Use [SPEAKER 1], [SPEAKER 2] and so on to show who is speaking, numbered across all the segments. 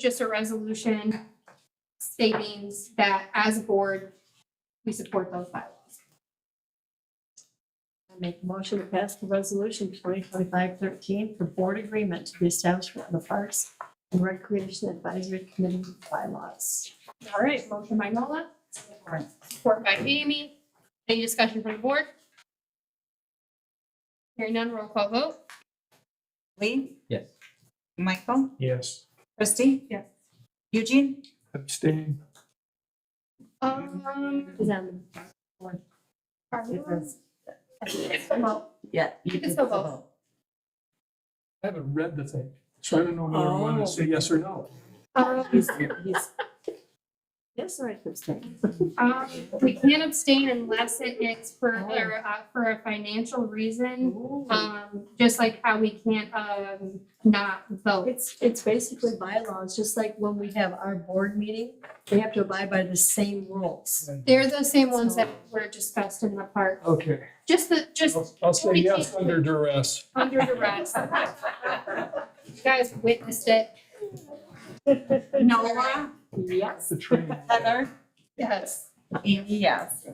[SPEAKER 1] just a resolution stating that as a board, we support those bylaws.
[SPEAKER 2] I make a motion to pass the resolution twenty twenty-five thirteen for board agreement to the establishment of the Parks and Recreation Advisory Committee bylaws.
[SPEAKER 1] All right, motion by Nola, support by Amy. Any discussion from the board? Hearing none, roll call vote.
[SPEAKER 3] Lee?
[SPEAKER 4] Yes.
[SPEAKER 3] Michael?
[SPEAKER 5] Yes.
[SPEAKER 3] Christie?
[SPEAKER 1] Yes.
[SPEAKER 3] Eugene?
[SPEAKER 5] Abstain.
[SPEAKER 1] Um.
[SPEAKER 2] Is on
[SPEAKER 1] are we on?
[SPEAKER 3] Yeah.
[SPEAKER 1] You can still vote.
[SPEAKER 5] I haven't read the thing, so I don't know whether I want
[SPEAKER 2] Oh.
[SPEAKER 5] to say yes or no.
[SPEAKER 1] Um,
[SPEAKER 2] he's, he's. Yes, right, this thing.
[SPEAKER 1] um, We can abstain unless it is for, uh, for a financial reason, um, just like how we can't um, not vote.
[SPEAKER 2] It's, it's basically bylaws, just like when we have our board meeting, we have to abide by the same rules.
[SPEAKER 1] They're the same ones that were discussed in the park,
[SPEAKER 5] Okay,
[SPEAKER 1] just the, just
[SPEAKER 5] I'll- I'll say
[SPEAKER 1] We
[SPEAKER 5] yes
[SPEAKER 1] can't-
[SPEAKER 5] under duress.
[SPEAKER 1] under duress. You guys witnessed it.
[SPEAKER 3] Noah?
[SPEAKER 2] Yes.
[SPEAKER 5] The train.
[SPEAKER 3] Heather?
[SPEAKER 1] Yes.
[SPEAKER 3] Amy, yes.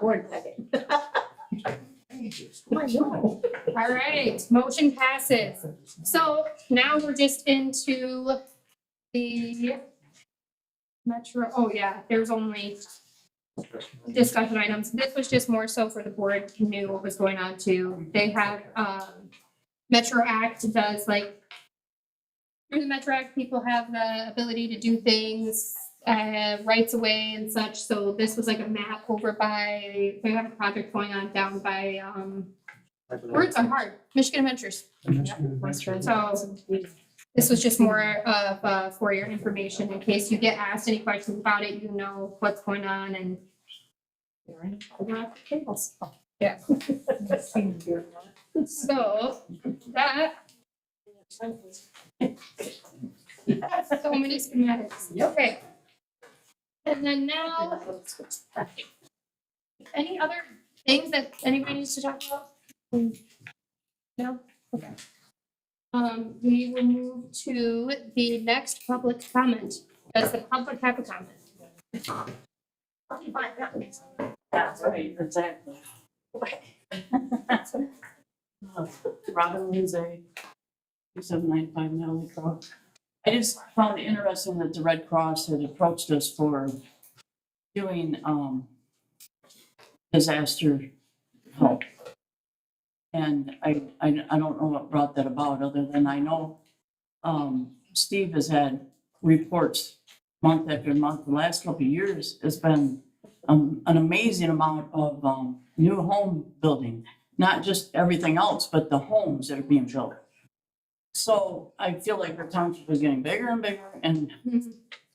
[SPEAKER 2] Board meeting. My God.
[SPEAKER 1] All right, motion passes. So now we're just into the metro, oh yeah, there's only discussion items. This was just more so for the board knew what was going on too. They have, um, Metro Act does like, through the Metro Act, people have the ability to do things, uh, rights away and such. So this was like a map over by, they have a project going on down by, um, Words are hard. Michigan Adventures.
[SPEAKER 5] I'm just gonna-
[SPEAKER 1] So this was just more of, uh, for your information in case you get asked any questions about it, you know what's going on and.
[SPEAKER 3] Yeah.
[SPEAKER 1] So that, so many schematics. Okay. And then now, any other things that anybody needs to talk about? No? Okay. Um, we will move to the next public comment. Does the public have a comment?
[SPEAKER 2] That's right, exactly.
[SPEAKER 6] Robin Lindsay, two seven nine five Natalie Crowe. I just found it interesting that the Red Cross had approached us for doing, um, disaster help. And I, I, I don't know what brought that about, other than I know, um, Steve has had reports month after month, the last couple of years, it's been, um, an amazing amount of, um, new home building not just everything else, but the homes that are being built. So I feel like the township is getting bigger and bigger, and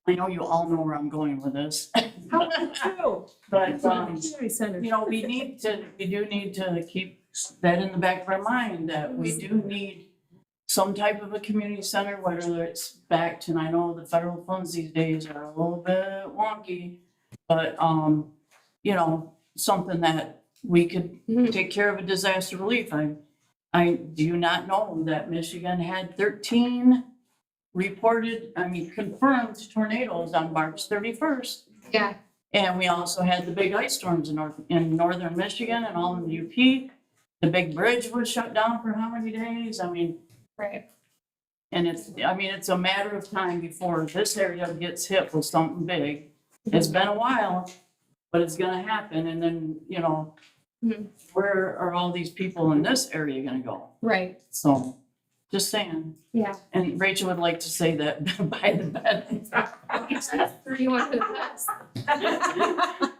[SPEAKER 6] I know you all know where I'm going with this. But, um, you know, we need to, we do need to keep that in the back of our mind, that we do need some type of a community center, whether it's backed, and I know the federal funds these days are a little bit wonky, but, um, you know, something that we could take care of a disaster relief. I, I do not know that Michigan had thirteen reported, I mean, confirmed tornadoes on March thirty-first.
[SPEAKER 1] Yeah,
[SPEAKER 6] And we also had the big ice storms in north, in northern Michigan and all in the UP. The big bridge was shut down for how many days? I mean,
[SPEAKER 1] right.
[SPEAKER 6] and it's, I mean, it's a matter of time before this area gets hit with something big. It's been a while, but it's gonna happen, and then, you know,
[SPEAKER 1] Mhm.
[SPEAKER 6] where are all these people in this area gonna go?
[SPEAKER 1] Right,
[SPEAKER 6] So, just saying,
[SPEAKER 1] yeah.
[SPEAKER 6] and Rachel would like to say that by the bed.
[SPEAKER 1] You want to pass?
[SPEAKER 6] Uh,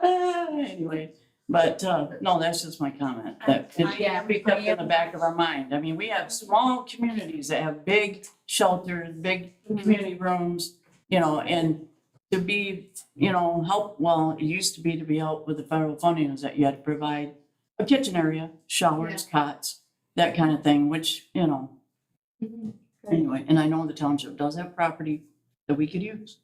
[SPEAKER 6] Anyway, but, uh, no, that's just my comment, that it
[SPEAKER 1] Yeah.
[SPEAKER 6] should be kept in the back of our mind. I mean, we have small communities that have big shelters, big community rooms, you know, and to be, you know, help, well, it used to be to be helped with the federal funding is that you had to provide a kitchen area, showers, cots, that kind of thing, which, you know,
[SPEAKER 1] Mm-hmm.
[SPEAKER 6] anyway, and I know the township does have property that we could use.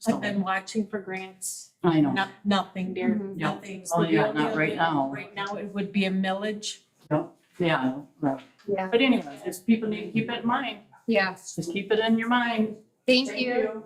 [SPEAKER 6] So,
[SPEAKER 7] I've been watching for grants,
[SPEAKER 6] I know,
[SPEAKER 7] not, nothing dear,
[SPEAKER 1] Mhm.
[SPEAKER 6] Yeah.
[SPEAKER 7] nothing.
[SPEAKER 6] Oh, yeah,
[SPEAKER 7] The
[SPEAKER 6] not
[SPEAKER 7] only
[SPEAKER 6] right
[SPEAKER 7] other-
[SPEAKER 6] now.
[SPEAKER 7] Right now, it would be a millage.
[SPEAKER 6] yeah, right.
[SPEAKER 1] Yeah,
[SPEAKER 6] but anyway, just people need to keep it in mind,
[SPEAKER 1] yeah.
[SPEAKER 6] just keep it in your mind,
[SPEAKER 1] Thank you.